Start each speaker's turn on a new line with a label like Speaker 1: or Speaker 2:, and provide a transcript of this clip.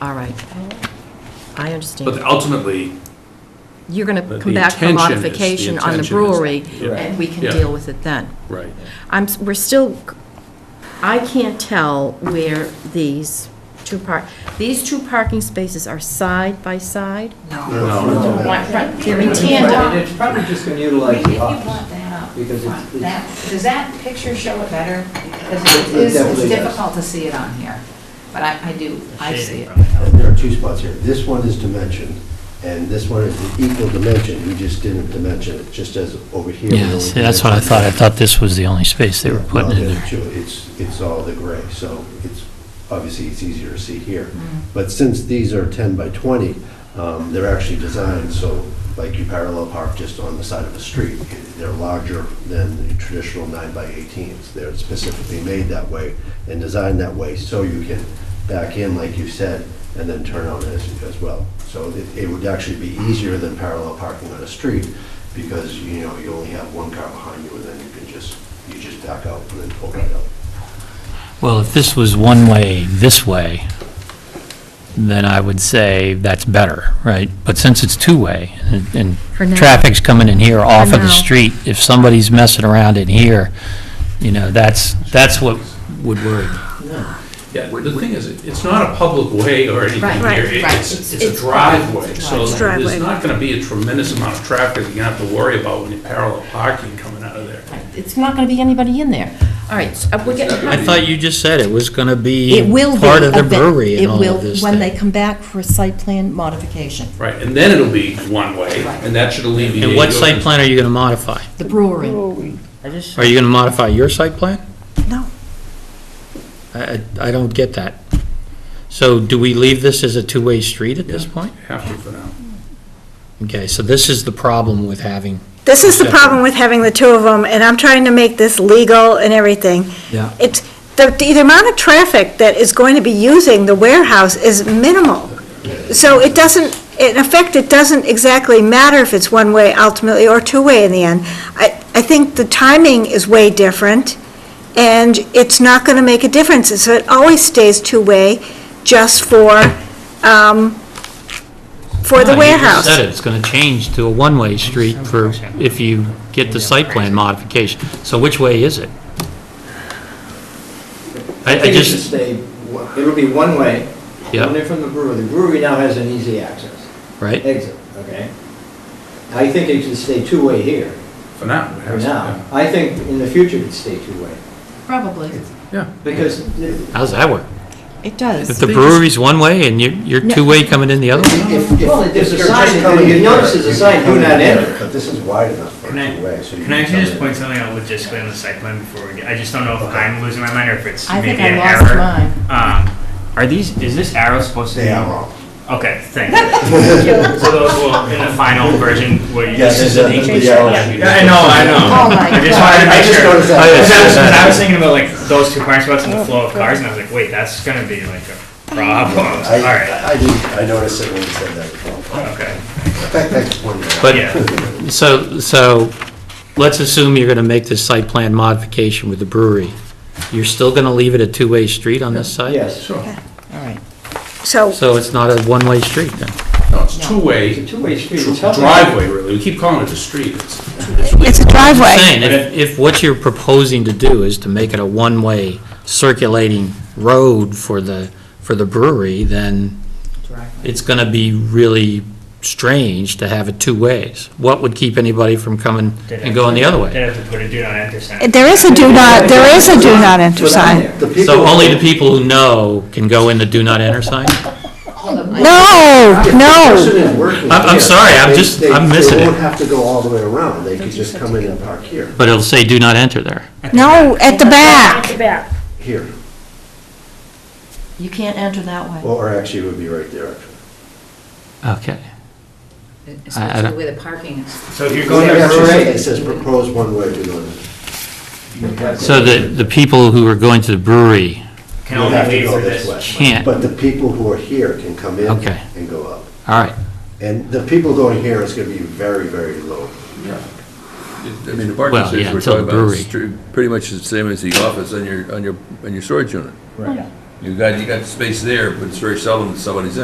Speaker 1: All right. I
Speaker 2: But
Speaker 1: understand.
Speaker 2: ultimately,
Speaker 1: You're going
Speaker 2: But
Speaker 1: to come
Speaker 2: the
Speaker 1: back for
Speaker 2: intention is- the
Speaker 1: modification on the
Speaker 2: intention is-
Speaker 1: brewery,
Speaker 2: yeah.
Speaker 1: and we can
Speaker 2: Yeah.
Speaker 1: deal with it then.
Speaker 2: right.
Speaker 1: I'm, s- we're still, I can't tell where these two park, these two parking spaces are side by side?
Speaker 2: No,
Speaker 1: Right, right, They're in
Speaker 3: It's
Speaker 1: tandem.
Speaker 3: probably- It's probably just gonna
Speaker 4: I mean,
Speaker 3: utilize
Speaker 4: If you
Speaker 3: the
Speaker 4: want
Speaker 3: office.
Speaker 4: that up
Speaker 3: Because it's-
Speaker 4: front, that, does that picture show it better? Because it
Speaker 3: It
Speaker 4: is, it's
Speaker 3: definitely does.
Speaker 4: difficult to see it on here, but I, I do, I see it.
Speaker 5: There are two spots here. This one is dimensioned, and this one is the equal dimension. We just didn't dimension it, just as over here. we
Speaker 6: Yeah,
Speaker 5: only
Speaker 6: see, that's what I thought. I Oh, thought this was the only space they were
Speaker 5: dimensioned-
Speaker 6: putting in
Speaker 5: Well,
Speaker 6: there.
Speaker 5: they're two- It's, it's all the gray, so it's, obviously, it's easier to see here. But since these are 10 by 20, um, they're actually designed, so like you parallel park just on the side of the street. They're larger than the traditional 9 by 18s. They're specifically made that way and designed that way so you can back in, like you said, and then turn on as, as well. So it, it would actually be easier than parallel parking on a street because, you know, you only have one car behind you and then you can just, you just back out and then pull right out.
Speaker 6: Well, if this was one way this way, then I would say that's better, right? But since it's two-way and-
Speaker 1: For now.
Speaker 6: and traffic's coming in here off of
Speaker 1: now.
Speaker 6: the street, if somebody's messing around in here, you know, that's, that's what would worry me.
Speaker 2: yeah, the thing is, it's not a public way or anything
Speaker 1: Right,
Speaker 2: here.
Speaker 1: right, right.
Speaker 2: It's, it's a
Speaker 1: It's-
Speaker 2: driveway,
Speaker 4: it's a
Speaker 2: so
Speaker 1: driveway.
Speaker 2: there's not gonna be a tremendous amount of traffic you're gonna have to worry about when you're parallel parking coming out of there.
Speaker 1: It's not going to be anybody in there. All right, so uh, we're getting.
Speaker 6: I thought you just said it was going to be
Speaker 1: It will be.
Speaker 6: part of the
Speaker 1: event-
Speaker 6: brewery
Speaker 1: it
Speaker 6: and all
Speaker 1: will-
Speaker 6: of this
Speaker 1: When they
Speaker 6: thing.
Speaker 1: come back for a site plan modification,
Speaker 2: Right, and then it'll be one way, and that should alleviate.
Speaker 6: And what
Speaker 2: your-
Speaker 6: site plan are you going to modify?
Speaker 1: the brewery.
Speaker 6: Are you going to modify your site plan?
Speaker 1: No.
Speaker 6: I, I- I don't get that. So do we leave this as a two-way street at this
Speaker 2: Yeah.
Speaker 6: point?
Speaker 2: Have to for now.
Speaker 6: Okay, so this is the problem with having.
Speaker 7: This is the
Speaker 6: Yeah.
Speaker 7: problem with having the two of them, and I'm trying to make this legal and everything.
Speaker 6: Yeah.
Speaker 7: It's, the, the amount of traffic that is going to be using the warehouse is minimal. So it doesn't, in effect, it doesn't exactly matter if it's one-way ultimately or two-way in the end. I, I think the timing is way different, and it's not gonna make a difference, so it always stays two-way just for, um, for the warehouse.
Speaker 6: said it, it's going to change to a one-way street for, if you get the site plan modification. So which way is it? I, I
Speaker 3: think it should
Speaker 6: just,
Speaker 3: stay, one- it'll be one way,
Speaker 6: Yeah.
Speaker 3: only from the brewery. The brewery now has an easy access,
Speaker 6: right?
Speaker 3: exit, okay? I think it should stay two-way here
Speaker 2: For now. it
Speaker 3: for
Speaker 2: has to,
Speaker 3: now. I think in the future it'd stay two-way,
Speaker 4: Probably.
Speaker 2: Yeah.
Speaker 3: because the-
Speaker 6: How's that work?
Speaker 1: It
Speaker 6: If
Speaker 1: does.
Speaker 6: the brewery's one way and you're, you're
Speaker 1: No.
Speaker 6: two-way coming in the other way?
Speaker 5: If- if-
Speaker 3: Well, there's a
Speaker 5: if you're
Speaker 3: sign
Speaker 5: just
Speaker 3: that-
Speaker 5: coming
Speaker 3: you
Speaker 5: in
Speaker 3: notice
Speaker 5: here,
Speaker 3: there's a
Speaker 5: you
Speaker 3: sign,
Speaker 5: can
Speaker 3: do
Speaker 5: come
Speaker 3: not
Speaker 5: in,
Speaker 3: enter.
Speaker 5: But this is wide enough for
Speaker 8: Can I,
Speaker 5: two way, so you
Speaker 8: can I
Speaker 5: can come
Speaker 8: actually just
Speaker 5: in.
Speaker 8: point something out logistically on the site plan before we get, I just don't know if I'm losing my mind or if it's
Speaker 4: I think
Speaker 8: maybe
Speaker 4: I
Speaker 8: an
Speaker 4: lost
Speaker 8: error.
Speaker 4: mine.
Speaker 8: Um, are these, is this arrow supposed to be?
Speaker 5: They are wrong.
Speaker 8: Okay, thank you. So those will, in the final version, will you?
Speaker 5: Yes, it's a- it's a yellow.
Speaker 8: Yeah, I know, I know.
Speaker 4: Oh my
Speaker 8: I just
Speaker 4: God.
Speaker 8: wanted to
Speaker 5: I
Speaker 8: make
Speaker 5: just
Speaker 8: sure.
Speaker 5: noticed that.
Speaker 8: 'Cause I was, 'cause I was thinking about like those two parking spots and
Speaker 4: Oh,
Speaker 8: the flow of cars and I was like, wait, that's gonna be like a problem.
Speaker 5: I,
Speaker 8: Alright,
Speaker 5: I did, I noticed it when you said that.
Speaker 8: okay.
Speaker 5: In fact, I just pointed it out.
Speaker 6: But,
Speaker 8: Yeah.
Speaker 6: so, so, let's assume you're gonna make this site plan modification with the brewery. You're still gonna leave it a two-way street on this side?
Speaker 3: yes.
Speaker 2: Sure.
Speaker 1: All right.
Speaker 7: So
Speaker 6: So it's not a one-way street then?
Speaker 2: No, it's two-way.
Speaker 3: It's a two-way street. It's helping-
Speaker 2: Driveway, really. We keep calling it a street. It's
Speaker 7: it's a driveway.
Speaker 6: Saying, if, if what you're proposing to do is to make it a one-way circulating road for the, for the brewery, then it's gonna be really strange to have it two ways. What would keep anybody from coming and going the other way?
Speaker 8: Did have to put a do not enter sign.
Speaker 7: There is a do not, there is a do not enter
Speaker 3: Put on
Speaker 7: sign.
Speaker 3: there.
Speaker 5: The people-
Speaker 6: So only the people who know can go in the do not enter sign?
Speaker 7: No,
Speaker 5: If the person
Speaker 7: no.
Speaker 5: is working
Speaker 6: I'm- I'm
Speaker 5: here,
Speaker 6: sorry, I'm
Speaker 5: they-
Speaker 6: just-
Speaker 5: they-
Speaker 6: I'm missing
Speaker 5: They
Speaker 6: it.
Speaker 5: won't have to go all the way around, they could just come in and park here,
Speaker 6: But it'll say do not enter there.
Speaker 7: No, at the back.
Speaker 5: here,
Speaker 1: You can't enter that way.
Speaker 5: or actually it would be right there, actually.
Speaker 6: Okay. I
Speaker 4: Especially
Speaker 6: don't-
Speaker 4: where the parking is.
Speaker 8: So if you're
Speaker 3: Go
Speaker 8: going
Speaker 3: to
Speaker 5: It
Speaker 8: to
Speaker 5: actually
Speaker 3: brewery.
Speaker 5: says- It says propose one way to go.
Speaker 6: So the, the people who are going to the brewery
Speaker 8: can
Speaker 5: You'll
Speaker 8: only
Speaker 5: have to
Speaker 8: leave
Speaker 5: go
Speaker 8: for this.
Speaker 5: way.
Speaker 6: can't, all
Speaker 5: But the people who are here can come in
Speaker 6: Okay.
Speaker 5: and go up.
Speaker 6: right.
Speaker 5: And the people going here is going to be very, very low.
Speaker 9: I mean, the parking
Speaker 6: Well, yeah,
Speaker 9: space we're
Speaker 6: until
Speaker 9: talking
Speaker 6: the
Speaker 9: about
Speaker 6: brewery.
Speaker 9: is tr- pretty much the same as the office on your, on your, on your storage unit.
Speaker 3: Right.
Speaker 9: You got, you got space there, but it's very seldom that somebody's in.